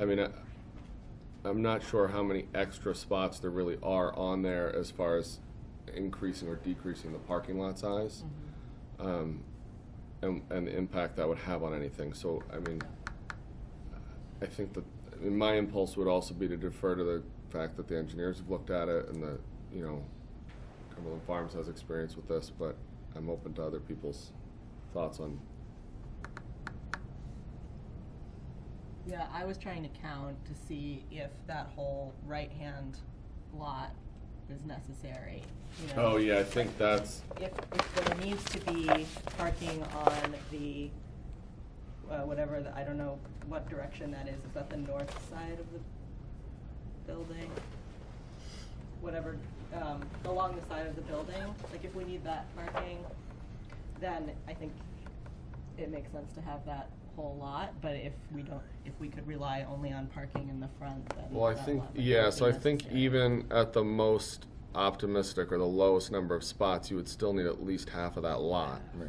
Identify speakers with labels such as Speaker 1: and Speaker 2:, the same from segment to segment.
Speaker 1: I mean, uh, I, I'm not sure how many extra spots there really are on there as far as increasing or decreasing the parking lot size. Um, and, and the impact that would have on anything, so, I mean, I think that, I mean, my impulse would also be to defer to the fact that the engineers have looked at it and the, you know, Cumberland Farms has experience with this, but I'm open to other people's thoughts on
Speaker 2: Yeah, I was trying to count to see if that whole right-hand lot is necessary, you know?
Speaker 1: Oh, yeah, I think that's,
Speaker 2: If, if there needs to be parking on the, uh, whatever, the- I don't know what direction that is, is that the north side of the building? Whatever, um, along the side of the building, like if we need that parking, then I think it makes sense to have that whole lot, but if we don't, if we could rely only on parking in the front, then
Speaker 1: well, I
Speaker 2: that
Speaker 1: think,
Speaker 2: lot might
Speaker 1: yeah,
Speaker 2: not
Speaker 1: so I
Speaker 2: be
Speaker 1: think
Speaker 2: necessary.
Speaker 1: even at the most optimistic or the lowest number of spots, you would still need at least half of that lot. Right.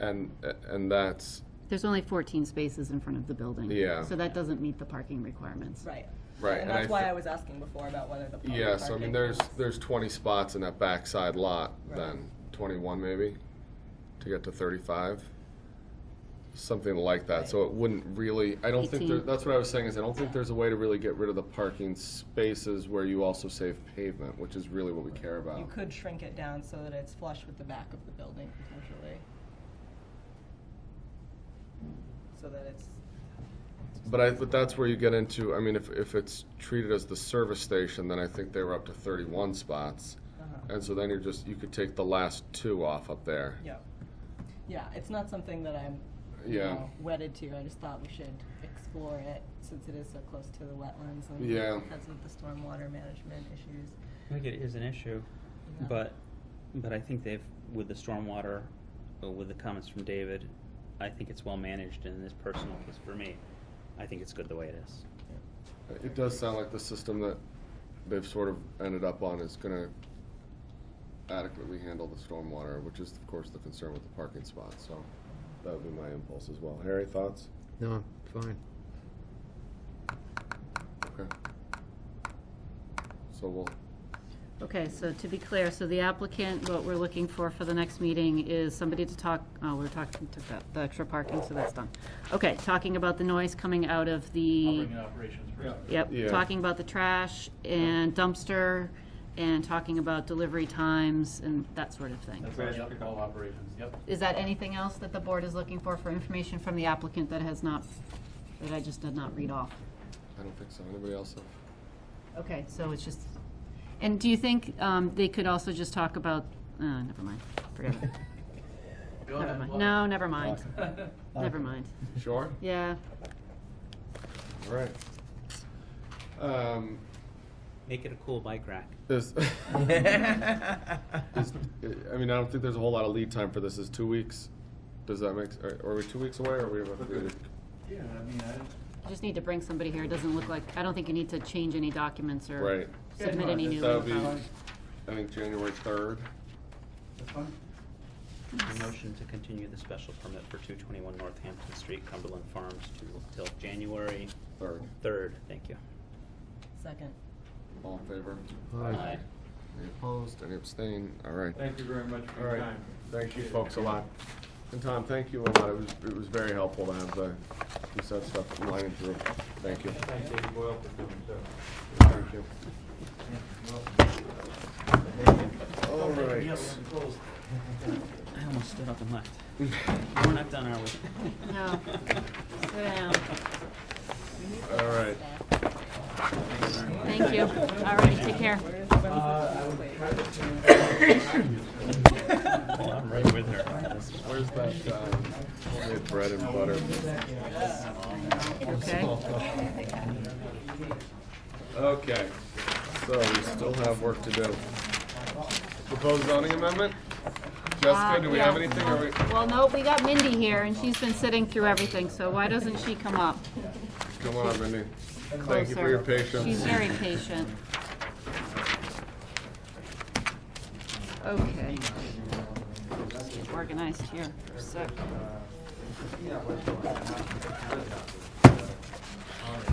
Speaker 1: And, and that's,
Speaker 3: There's only 14 spaces in front of the building.
Speaker 1: Yeah.
Speaker 3: So that doesn't meet the parking requirements.
Speaker 2: Right.
Speaker 1: Right,
Speaker 2: And
Speaker 1: and
Speaker 2: that's
Speaker 1: I
Speaker 2: why
Speaker 1: thi-
Speaker 2: I was asking before about whether the public parking.
Speaker 1: yeah, so I mean, there's,
Speaker 2: is-
Speaker 1: there's twenty spots in that backside lot
Speaker 2: Right.
Speaker 1: then, twenty-one maybe, to get to thirty-five. Something like that, so it wouldn't really, I don't think, there-
Speaker 3: Eighteen.
Speaker 1: that's what I was saying, is I don't think there's a way to really get rid of the parking spaces where you also save pavement, which is really what we care about.
Speaker 2: You could shrink it down so that it's flush with the back of the building potentially. So that it's,
Speaker 1: But I, but that's where you get into, I mean, if, if it's treated as the service station, then I think they were up to thirty-one spots.
Speaker 2: uh-huh,
Speaker 1: And so then you're just, you could take the last two off up there.
Speaker 2: yeah. Yeah, it's not something that I'm, you
Speaker 1: Yeah.
Speaker 2: know, wedded to, I just thought we should explore it since it is so close to the wetlands and
Speaker 1: Yeah.
Speaker 2: because of the stormwater management issues.
Speaker 4: I think it is an issue,
Speaker 2: Yeah.
Speaker 4: but, but I think they've, with the stormwater, uh, with the comments from David, I think it's well managed and in this personal case for me, I think it's good the way it is.
Speaker 1: It does sound like the system that they've sort of ended up on is gonna adequately handle the stormwater, which is of course the concern with the parking spots, so that would be my impulse as well. Harry, thoughts?
Speaker 5: No, fine.
Speaker 1: Okay. So we'll,
Speaker 3: Okay, so to be clear, so the applicant, what we're looking for for the next meeting is somebody to talk, oh, we're talking, took that, the extra parking, so that's done. Okay, talking about the noise coming out of
Speaker 6: I'll
Speaker 3: the,
Speaker 6: bring in operations first.
Speaker 1: Yeah.
Speaker 3: yep, talking about the trash and dumpster and talking about delivery times and that sort of thing.
Speaker 6: That's where I pick all operations, yep.
Speaker 3: Is that anything else that the board is looking for, for information from the applicant that has not, that I just did not read off?
Speaker 1: I don't think so. Anybody else have?
Speaker 3: Okay, so it's just, and do you think um, they could also just talk about, uh, never mind, forget it.
Speaker 6: Go
Speaker 3: Never
Speaker 6: ahead,
Speaker 3: mind.
Speaker 6: Laura.
Speaker 3: No, never mind, never mind.
Speaker 1: Sure.
Speaker 3: Yeah,
Speaker 1: All right. Um,
Speaker 4: Make it a cool bike rack.
Speaker 1: There's, is- I mean, I don't think there's a whole lot of lead time for this. Is two weeks? Does that make, are- are we two weeks away or are we about to?
Speaker 6: Yeah, I mean, I don't.
Speaker 3: you just need to bring somebody here, it doesn't look like, I don't think you need to change any documents or
Speaker 1: Right.
Speaker 6: Yeah,
Speaker 3: submit
Speaker 6: no,
Speaker 3: any
Speaker 6: that's-
Speaker 3: new
Speaker 1: That would be,
Speaker 3: info.
Speaker 1: I think, January third.
Speaker 6: That's fine.
Speaker 4: A motion to continue the special permit for two twenty-one Northampton Street, Cumberland Farms to, till January
Speaker 1: Third.
Speaker 4: third, thank you.
Speaker 2: Second.
Speaker 1: All in favor?
Speaker 5: Aye.
Speaker 4: Aye.
Speaker 1: Any opposed? Any abstain? All right.
Speaker 6: Thank you very much
Speaker 1: All
Speaker 6: for your
Speaker 1: right.
Speaker 6: time.
Speaker 1: Thank you
Speaker 6: Appreciate it.
Speaker 1: folks a lot. And Tom, thank you a lot. It was, it was very helpful to have the, you said stuff lining through. Thank you.
Speaker 6: Thank David Boyle for doing so.
Speaker 1: Thank you. All right.
Speaker 4: I almost stood up and left. We're not done, are we?
Speaker 3: No, sit down,
Speaker 1: All right.
Speaker 3: thank you, all right, take care.
Speaker 6: Uh,
Speaker 4: Oh, I'm right with her.
Speaker 1: Where's that, um, homemade bread and butter?
Speaker 3: Okay,
Speaker 1: Okay, so we still have work to do. Proposed zoning amendment? Jessica,
Speaker 3: Uh,
Speaker 1: do we have
Speaker 3: yeah.
Speaker 1: anything, or we,
Speaker 3: well, nope, we got Mindy here, and she's been sitting through everything, so why doesn't she come up
Speaker 1: come on, Mindy.
Speaker 3: closer?
Speaker 1: Thank you for your
Speaker 3: She's
Speaker 1: patience.
Speaker 3: very patient. Okay. Organized here for a sec.